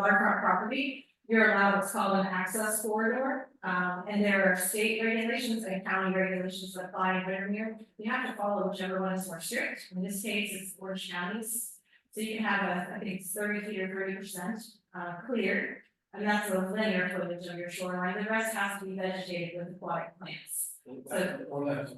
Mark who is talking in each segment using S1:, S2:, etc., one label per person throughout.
S1: waterfront property, you're allowed what's called an access corridor. Um, and there are state regulations and county regulations that apply in Windermere. You have to follow whichever one is more strict. In this case, it's Orange County's. So you have a, I think it's thirty feet or thirty percent, uh, clear. And that's the linear footage of your shoreline. The rest has to be vegetated with aquatic plants. So-
S2: Or less.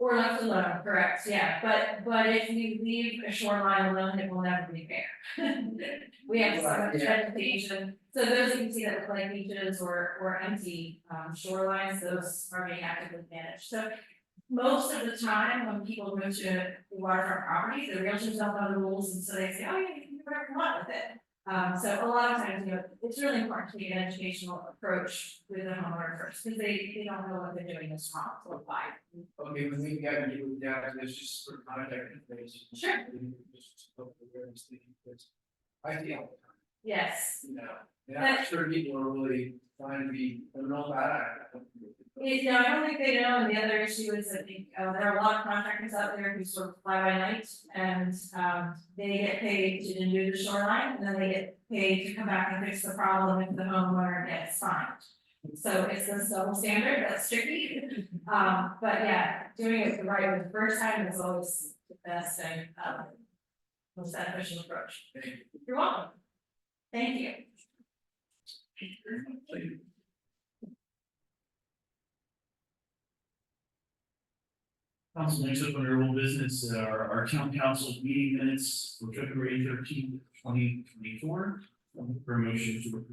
S1: Or left alone, correct, yeah, but but if we leave a shoreline alone, it will never be fair. We have so much
S2: Right, yeah.
S1: vegetation, so those you can see that look like beaches or or empty um shorelines, those are being actively managed, so. Most of the time, when people move to waterfront properties, the realtors don't know the rules, and so they say, oh, yeah, you can do whatever you want with it. Um, so a lot of times, you know, it's really important to get an educational approach with the homeowner first, because they they don't know what they're doing is wrong, so apply.
S2: Okay, when we got you down, there's just sort of contact information.
S1: Sure.
S2: And just hope that we're just thinking this. I feel,
S1: Yes,
S2: you know, and I'm sure people are really trying to be, I don't know about that.
S1: It- no, I don't think they know, and the other issue is, I think, uh, there are a lot of contractors out there who sort of fly by night, and, um, they get paid to do the shoreline, and then they get paid to come back and fix the problem if the homeowner gets fined. So it's this double standard, that's tricky, um, but yeah, doing it the right way the first time is always the best and, um, most beneficial approach.
S2: Thank you.
S1: You're welcome. Thank you.
S2: Thank you.
S3: Council, next up under old business, uh, our, our town council meeting minutes for February thirteenth, twenty twenty-four. For a motion to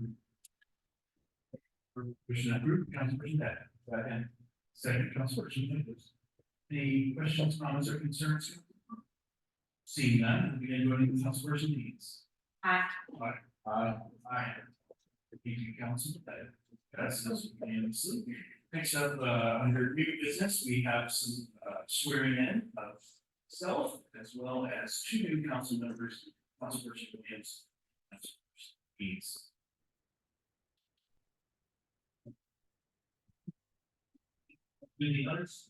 S3: approve. Motion approved, Councilperson Beck, second, second, Councilperson Nichols. Any questions, comments, or concerns? Seeing none, we can go into Councilperson Deeds.
S1: Aye.
S3: Aye. Aye. Aye. Thank you, Council, that, that's unanimously. Next up, uh, under new business, we have some, uh, swearing in of self as well as two new council members, Councilperson Williams. and Councilperson Deeds. Any others?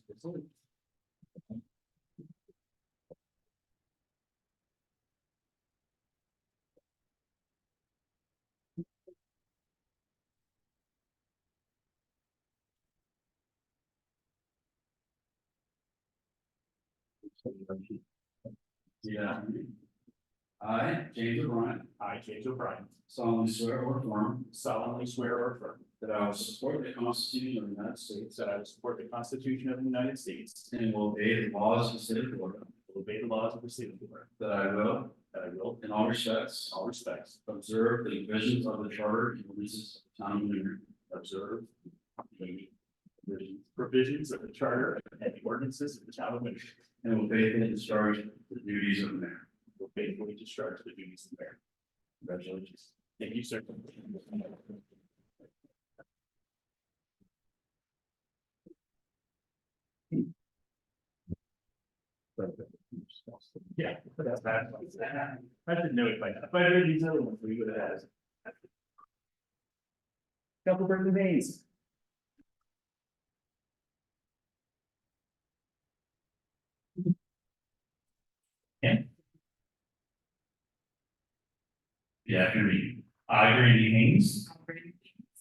S4: Yeah. I, James O'Brien,
S5: I, James O'Brien,
S4: solemnly swear or affirm
S5: solemnly swear or affirm
S4: that I will support the Constitution of the United States
S5: that I will support the Constitution of the United States,
S4: and will obey the laws of the state of Florida,
S5: will obey the laws of the state of Florida,
S4: that I will,
S5: that I will,
S4: in all respects,
S5: in all respects,
S4: observe the provisions of the charter and releases of the town of Newry,
S5: observe the provisions of the charter and the ordinances of the town of Winchester,
S4: and will faithfully discharge the duties of mayor.
S5: will faithfully discharge the duties of mayor. Congratulations. Thank you, sir. Yeah. that's bad. I didn't know if I, if I heard these other ones, we would have asked. Couple of names.
S3: Yeah, I read. I, Randy Haynes,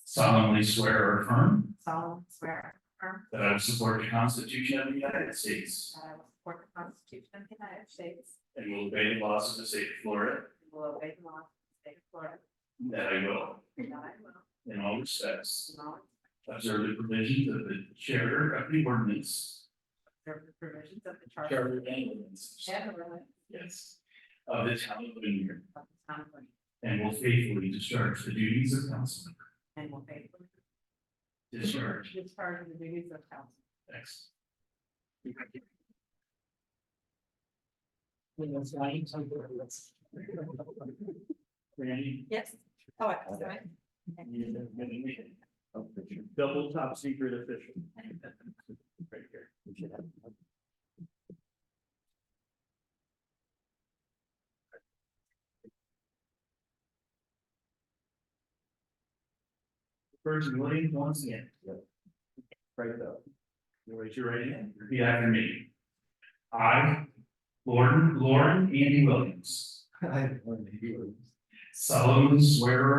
S3: solemnly swear or affirm
S6: solemnly swear
S3: that I will support the Constitution of the United States
S6: that I will support the Constitution of the United States
S3: and will obey the laws of the state of Florida,
S6: and will obey the laws of the state of Florida,
S3: that I will,
S6: and that I will,
S3: in all respects,
S6: in all respect,
S3: Observe the provisions of the charter of the ordinance.
S6: observe the provisions of the charter
S3: and ordinances.
S6: and the ordinance
S3: Yes. Of the town of Windermere,
S6: of the town of Lynn,
S3: and will faithfully discharge the duties of council member.
S6: and will faithfully
S3: Discharge.
S6: discharge the duties of council.
S3: Thanks.
S5: Randy.
S6: Yes. Oh, I was right.
S5: Double top secret official. Right here.
S3: First, Williams, once again.
S5: Right though.
S3: You raise your right hand. Repeat after me. I, Lauren, Lauren Andy Williams,
S2: I, I, you.
S3: solemnly swear or